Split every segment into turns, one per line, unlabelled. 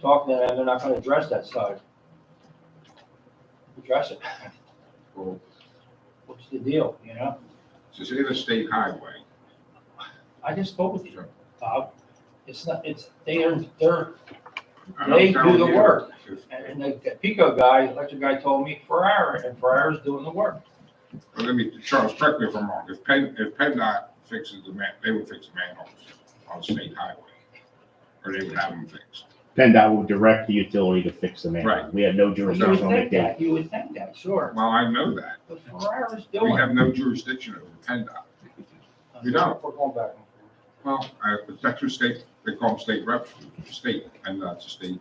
talk to them, and they're not gonna address that side. Address it,
Well,
what's the deal, you know?
it's an interstate highway.
I just spoke with you,
Sure.
Bob, it's not, it's, they are, they're,
I'm
They do the
telling you,
work.
it's-
and the the Pico guy, electric guy told me Ferrara, and Ferrara's doing the work.
Well, let me, Charles, correct me if I'm wrong, if Penn, if PennDOT fixes the man, they would fix the manholes on the state highway. Or they would have them fixed.
PennDOT will direct the utility to fix the manhole.
Right.
We have no
You
jurisdiction
would
on
think
it.
that, you would think that, sure,
Well, I know that.
but Ferrara's
We
doing. it.
have no jurisdiction over PennDOT. you don't.
We're going back and forth.
Well, I, that's who state, they call them state reps, state, and that's a state.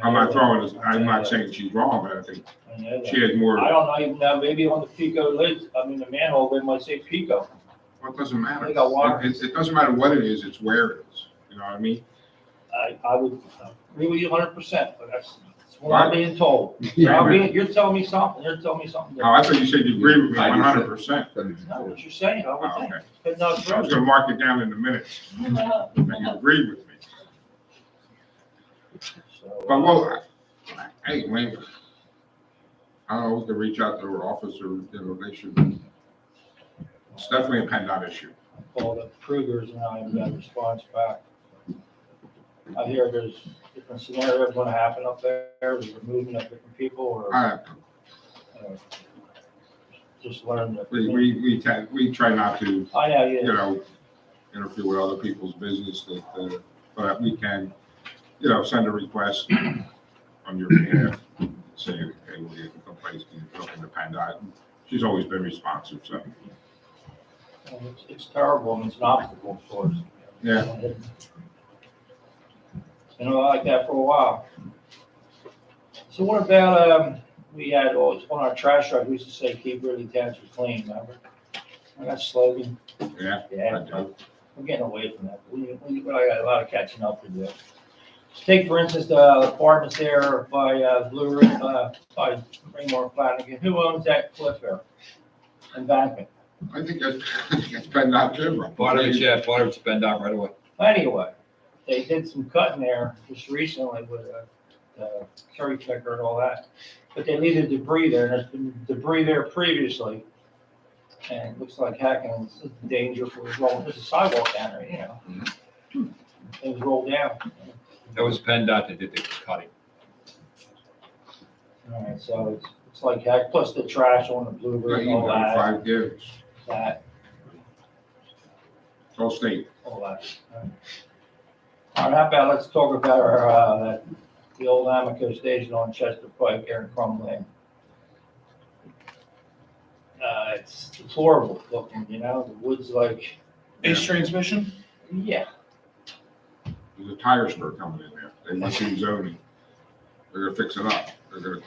I'm not throwing, this- I'm not saying she's wrong, but I think
I know that.
she has more,
I
well,
don't know, even now, maybe on the Pico lid, I mean, the manhole, they might say Pico.
it doesn't matter.
They got water.
It, it doesn't matter what it is, it's where it is, you know what I mean?
I, I would agree with you hundred percent, but that's, that's what I'm being told.
Yeah,
You're
I mean-
being- you're telling me something, you're telling me something
Oh, I
different.
thought you said you agree with me
I
one
just said-
hundred percent.
Not what you're saying, I would think,
Okay,
but not
I
true.
was gonna mark it down in a minute, that you agree with me.
So,
But well, I- I- hey, man, I don't know, we can reach out to our officer, you know, they should, it's definitely a PennDOT issue.
I Called up Krugers and I haven't got a response back. I hear there's different scenarios gonna happen up there, there's a movement of different people or
I,
uh, just learn that.
we, we, we tend, we try not to,
I know,
you
yeah.
know, interfere with other people's business that, uh, but we can, you know, send a request on your behalf, saying, hey, we're getting complaints, can you talk to PennDOT? She's always been responsive, so,
And It's, it's terrible and it's an obstacle for us.
yeah.
You know, I like that for a while. So what about, um, we had, always on our trash truck, we used to say, keep really Township clean, remember? I got slogan.
Yeah, I
Yeah,
do.
we're getting away from that. We, we, but I got a lot of catching up to do. Just Take for instance, the apartments there by, uh, Blue, Ri- uh, by Raymore Flanagan. Who owns that cliff there? Embankment.
I think that's, I think that's PennDOT too.
Part of it, yeah, part of it's been done right away.
Anyway, they did some cutting there just recently with uh, the cherry picker and all that. But they needed debris there, and there's been debris there previously. And it looks like heck, and it's a danger for it rolling, there's a sidewalk down there, you know.
Mm-hmm.
Things roll down.
That was PennDOT that did the cutting.
All right, so it's, it's like heck, plus the trash on the blueberry and
You
all
know,
that,
five years.
that,
It's all state.
all that. All right, how about, let's talk about our, uh, that- the old Amico station on Chester Pike, there in Crum Lane. Uh, it's deplorable looking, you know, the woods like,
Ace transmission?
yeah,
There's a tire store coming in there. They went through zoning. They're gonna fix it up. They're gonna,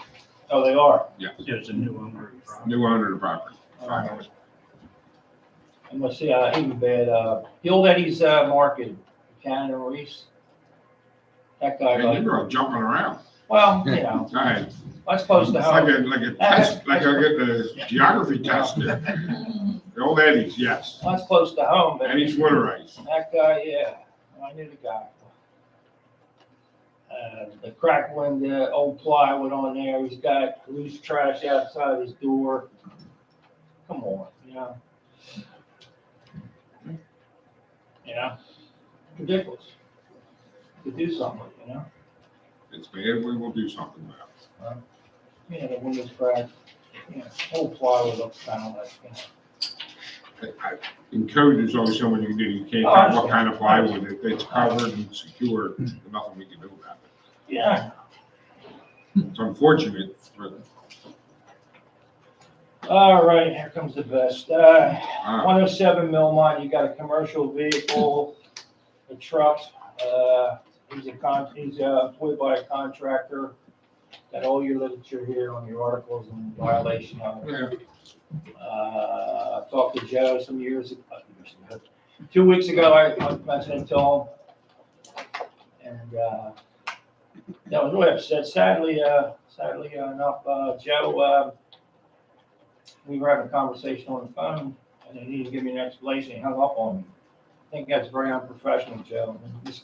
oh, they are.
There's a new owner.
new owner of the property.
All right.
finally.
I'm gonna see, uh, even bad, uh, the old Eddie's, uh, market, Canada Reese. That guy,
And
like,
you're all jumping around.
well, you know,
All right.
I suppose
It's
the
like
hope.
a, like a test, like I get the geography test there. The old Eddie's, yes.
That's close to home, but
Eddie's winter ice.
that guy, yeah, Oh, I knew the guy. Uh, the crack when the old plywood on there, he's got loose trash outside his door. Come on, you know? You know, ridiculous. To do something, you know,
It's bad. We will do something about it.
you know, the windows cracked, you know, old plywood looks kind of like, you know.
I- In code, there's always someone you can do. You can't
Oh, I
tell what kind of plywood. If it's covered and secure, there's nothing we can do about it.
Yeah,
It's unfortunate, but,
all right, here comes the best. Uh,
uh,
One oh seven Millmont, you got a commercial vehicle, a truck, uh, he's a con, he's uh, employed by a contractor. Got all your literature here on your articles and violation of it.
yeah.
Uh, I talked to Joe some years ago, uh, years ago, two weeks ago, I I mentioned it to him. And, uh, that was really upset. Sadly, uh, sadly enough, uh, Joe, uh, we were having a conversation on the phone and then he didn't give me an explanation. He hung up on me. I think that's very unprofessional, Joe. This